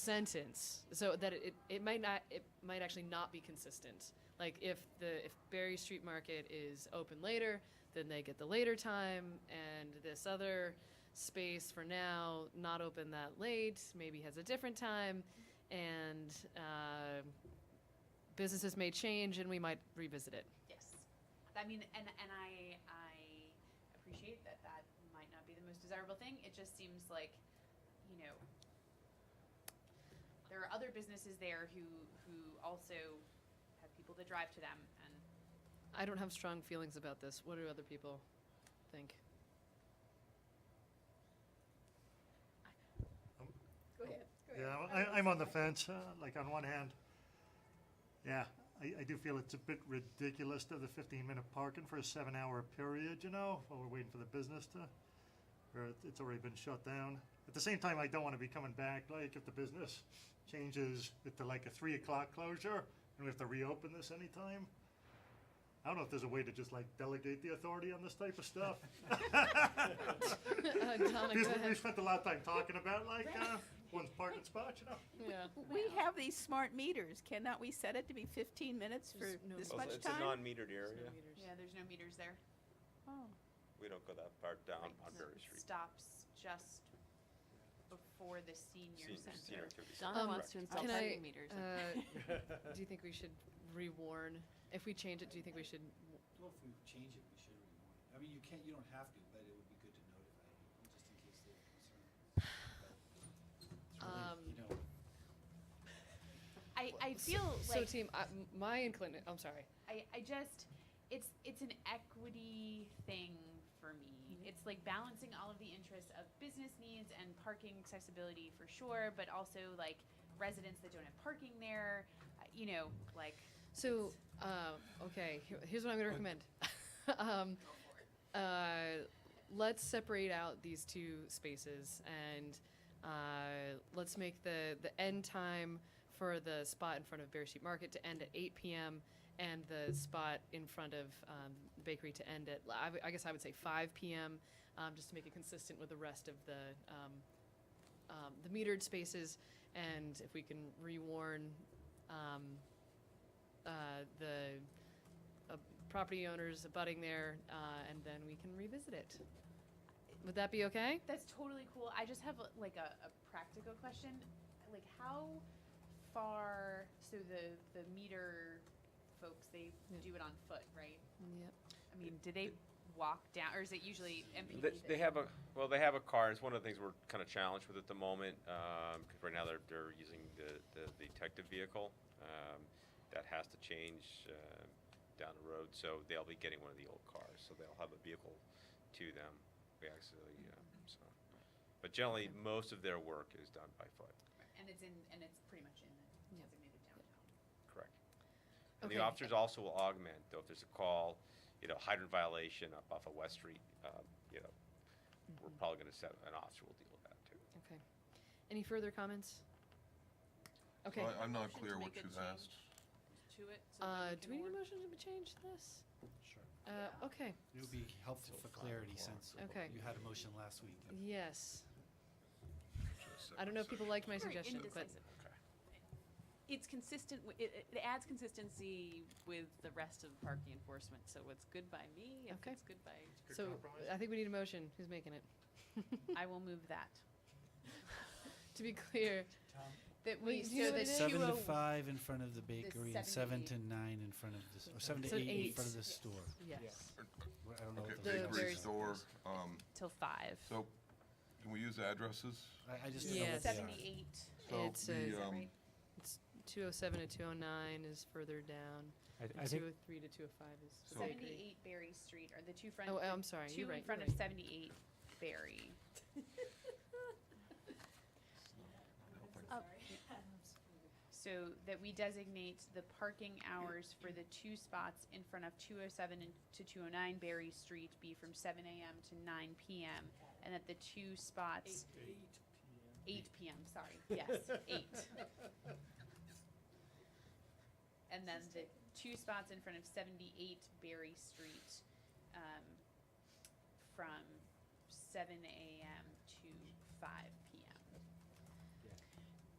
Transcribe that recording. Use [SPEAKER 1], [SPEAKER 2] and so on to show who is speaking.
[SPEAKER 1] sentence so that it, it, it might not it might actually not be consistent like if the if berry street market is open later then they get the later time and this other space for now not open that late maybe has a different time and uh, businesses may change and we might revisit it
[SPEAKER 2] Yes. I mean, and, and I, I appreciate that that might not be the most desirable thing. It just seems like, you know, there are other businesses there who, who also have people that drive to them and
[SPEAKER 1] i don't have strong feelings about this what do other people think
[SPEAKER 2] Go ahead.
[SPEAKER 3] Yeah, I, I'm on the fence, uh, like on one hand, yeah, I, I do feel it's a bit ridiculous to have the fifteen minute parking for a seven hour period, you know, while we're waiting for the business to, or it- it's already been shut down. At the same time, I don't wanna be coming back, like if the business changes it to like a three o'clock closure and we have to reopen this anytime. I don't know if there's a way to just like delegate the authority on this type of stuff.
[SPEAKER 1] uh, Donna, go
[SPEAKER 3] Because we- we
[SPEAKER 1] ahead.
[SPEAKER 3] spent a lot of time talking about like, uh, one's parking spot, you know?
[SPEAKER 1] yeah
[SPEAKER 4] We have these smart meters. Cannot we set it to be 15 minutes for
[SPEAKER 1] There's no-
[SPEAKER 4] this
[SPEAKER 1] Also,
[SPEAKER 5] Well,
[SPEAKER 4] much
[SPEAKER 5] it's
[SPEAKER 4] time?
[SPEAKER 5] a non-metered
[SPEAKER 1] There's no
[SPEAKER 5] area.
[SPEAKER 1] meters.
[SPEAKER 2] Yeah, there's no meters there.
[SPEAKER 4] Oh.
[SPEAKER 5] We don't go that far down
[SPEAKER 2] Right.
[SPEAKER 5] on Berry Street.
[SPEAKER 2] Stops just before the senior
[SPEAKER 5] Senior, senior
[SPEAKER 2] center.
[SPEAKER 5] activity. center,
[SPEAKER 6] Donna
[SPEAKER 1] Um,
[SPEAKER 6] wants to install
[SPEAKER 5] correct.
[SPEAKER 1] can I,
[SPEAKER 6] parking meters.
[SPEAKER 1] uh, Do you think we should rewarn? If we change it, do you think we should?
[SPEAKER 7] Well, if we change it, we should reward it. I mean, you can't, you don't have to, but it would be good to notify people, just in case they have concern. It's
[SPEAKER 1] Um,
[SPEAKER 7] really, you know,
[SPEAKER 2] I, I feel
[SPEAKER 1] So,
[SPEAKER 2] like
[SPEAKER 1] team, I, m- my inclination. I'm sorry.
[SPEAKER 2] I, I just it's it's an equity thing for me. It's like balancing all of the interests of business needs and parking accessibility for sure, but also like residents that don't have parking there, uh, you know, like
[SPEAKER 1] So, uh, okay, here- here's what I'm gonna recommend. um, uh, let's separate out these two spaces and uh, let's make the the end time for the spot in front of Bear Sheep Market to end at 8 p.m. and the spot in front of um, the bakery to end at I w- I guess I would say 5 p.m. Um, just to make it consistent with the rest of the um, um, the metered spaces and if we can rewarn. Um, uh, the uh, property owners abutting there, uh, and then we can revisit it. Would that be okay?
[SPEAKER 2] That's totally cool. I just have like a, a practical question. Like how far so the the meter folks they
[SPEAKER 1] Yeah.
[SPEAKER 2] do it on foot, right?
[SPEAKER 1] Yep.
[SPEAKER 2] I mean, do they walk down or is it usually MPD?
[SPEAKER 5] They,
[SPEAKER 2] that-
[SPEAKER 5] they have a, well, they have a car. It's one of the things we're kind of challenged with at the moment, um, because right now they're, they're using the, the detective vehicle. Um, that has to change, uh, down the road, so they'll be getting one of the old cars, so they'll have a vehicle to them. We actually, um, so. But generally, most of their work is done by foot,
[SPEAKER 2] and it's in and it's pretty much in the
[SPEAKER 1] Yeah.
[SPEAKER 2] designated downtown.
[SPEAKER 5] correct? And
[SPEAKER 1] Okay.
[SPEAKER 5] the officers also will augment, though, if there's a call, you know, hydrant violation up off of West Street, um, you know, we're probably gonna set, an officer will deal with that too.
[SPEAKER 1] Okay. Any further comments? Okay.
[SPEAKER 8] I, I'm not
[SPEAKER 2] Motion to
[SPEAKER 8] clear what
[SPEAKER 2] make a
[SPEAKER 8] you've
[SPEAKER 2] change.
[SPEAKER 8] asked.
[SPEAKER 2] To it. so that
[SPEAKER 1] Uh, do
[SPEAKER 2] we can
[SPEAKER 1] we need
[SPEAKER 2] order-
[SPEAKER 1] a motion to change this?
[SPEAKER 7] Sure.
[SPEAKER 1] Uh, okay.
[SPEAKER 7] It would be helpful for clarity since
[SPEAKER 1] Okay.
[SPEAKER 7] you had a motion last week.
[SPEAKER 1] Yes. I don't know if people liked my
[SPEAKER 4] Very
[SPEAKER 1] suggestion, but
[SPEAKER 4] indecisive.
[SPEAKER 5] Okay.
[SPEAKER 6] It's consistent, wi- it, it- it adds consistency with the rest of the parking enforcement, so it's good by me, if
[SPEAKER 1] Okay.
[SPEAKER 6] it's good by,
[SPEAKER 3] Good
[SPEAKER 1] so
[SPEAKER 3] compromise.
[SPEAKER 1] I think we need a motion. Who's making it?
[SPEAKER 2] I will move that.
[SPEAKER 1] to be clear,
[SPEAKER 7] Tom?
[SPEAKER 1] that we
[SPEAKER 2] Wait,
[SPEAKER 1] do you know
[SPEAKER 2] so oh
[SPEAKER 1] what it
[SPEAKER 2] the
[SPEAKER 1] is?
[SPEAKER 2] sub-
[SPEAKER 9] Seven to
[SPEAKER 2] Duo-
[SPEAKER 9] five in front of the bakery and
[SPEAKER 2] seven
[SPEAKER 9] seven
[SPEAKER 2] to
[SPEAKER 9] to nine in front of the, or seven to
[SPEAKER 1] So
[SPEAKER 9] eight in
[SPEAKER 1] eight.
[SPEAKER 9] front of the store.
[SPEAKER 1] yes.
[SPEAKER 9] I
[SPEAKER 7] Oh,
[SPEAKER 9] don't know
[SPEAKER 8] Okay,
[SPEAKER 9] what
[SPEAKER 1] the-
[SPEAKER 9] the.
[SPEAKER 8] bakery
[SPEAKER 1] very-
[SPEAKER 8] store, um,
[SPEAKER 2] Till five.
[SPEAKER 8] so, can we use addresses?
[SPEAKER 9] I, I just don't know
[SPEAKER 1] Yes.
[SPEAKER 9] what they are.
[SPEAKER 2] Seventy-eight.
[SPEAKER 8] So
[SPEAKER 1] It's a- Is
[SPEAKER 8] the,
[SPEAKER 1] that
[SPEAKER 8] um,
[SPEAKER 2] right?
[SPEAKER 1] 207 to 209 is further down.
[SPEAKER 10] I, I
[SPEAKER 1] and
[SPEAKER 10] think
[SPEAKER 1] 203 to 205 is.
[SPEAKER 8] So-
[SPEAKER 1] the bakery.
[SPEAKER 2] Seventy-eight Berry Street are the two front.
[SPEAKER 1] Oh, I'm sorry.
[SPEAKER 2] Two
[SPEAKER 1] You're right.
[SPEAKER 2] in front
[SPEAKER 1] you're
[SPEAKER 2] of
[SPEAKER 1] right.
[SPEAKER 2] seventy-eight Berry. So that we designate the parking hours for the two spots in front of two oh seven and to two oh nine Berry Street be from seven AM to nine PM. And that the two spots. Eight PM, sorry, yes, eight. And then the two spots in front of seventy-eight Berry Street, um, from seven AM to five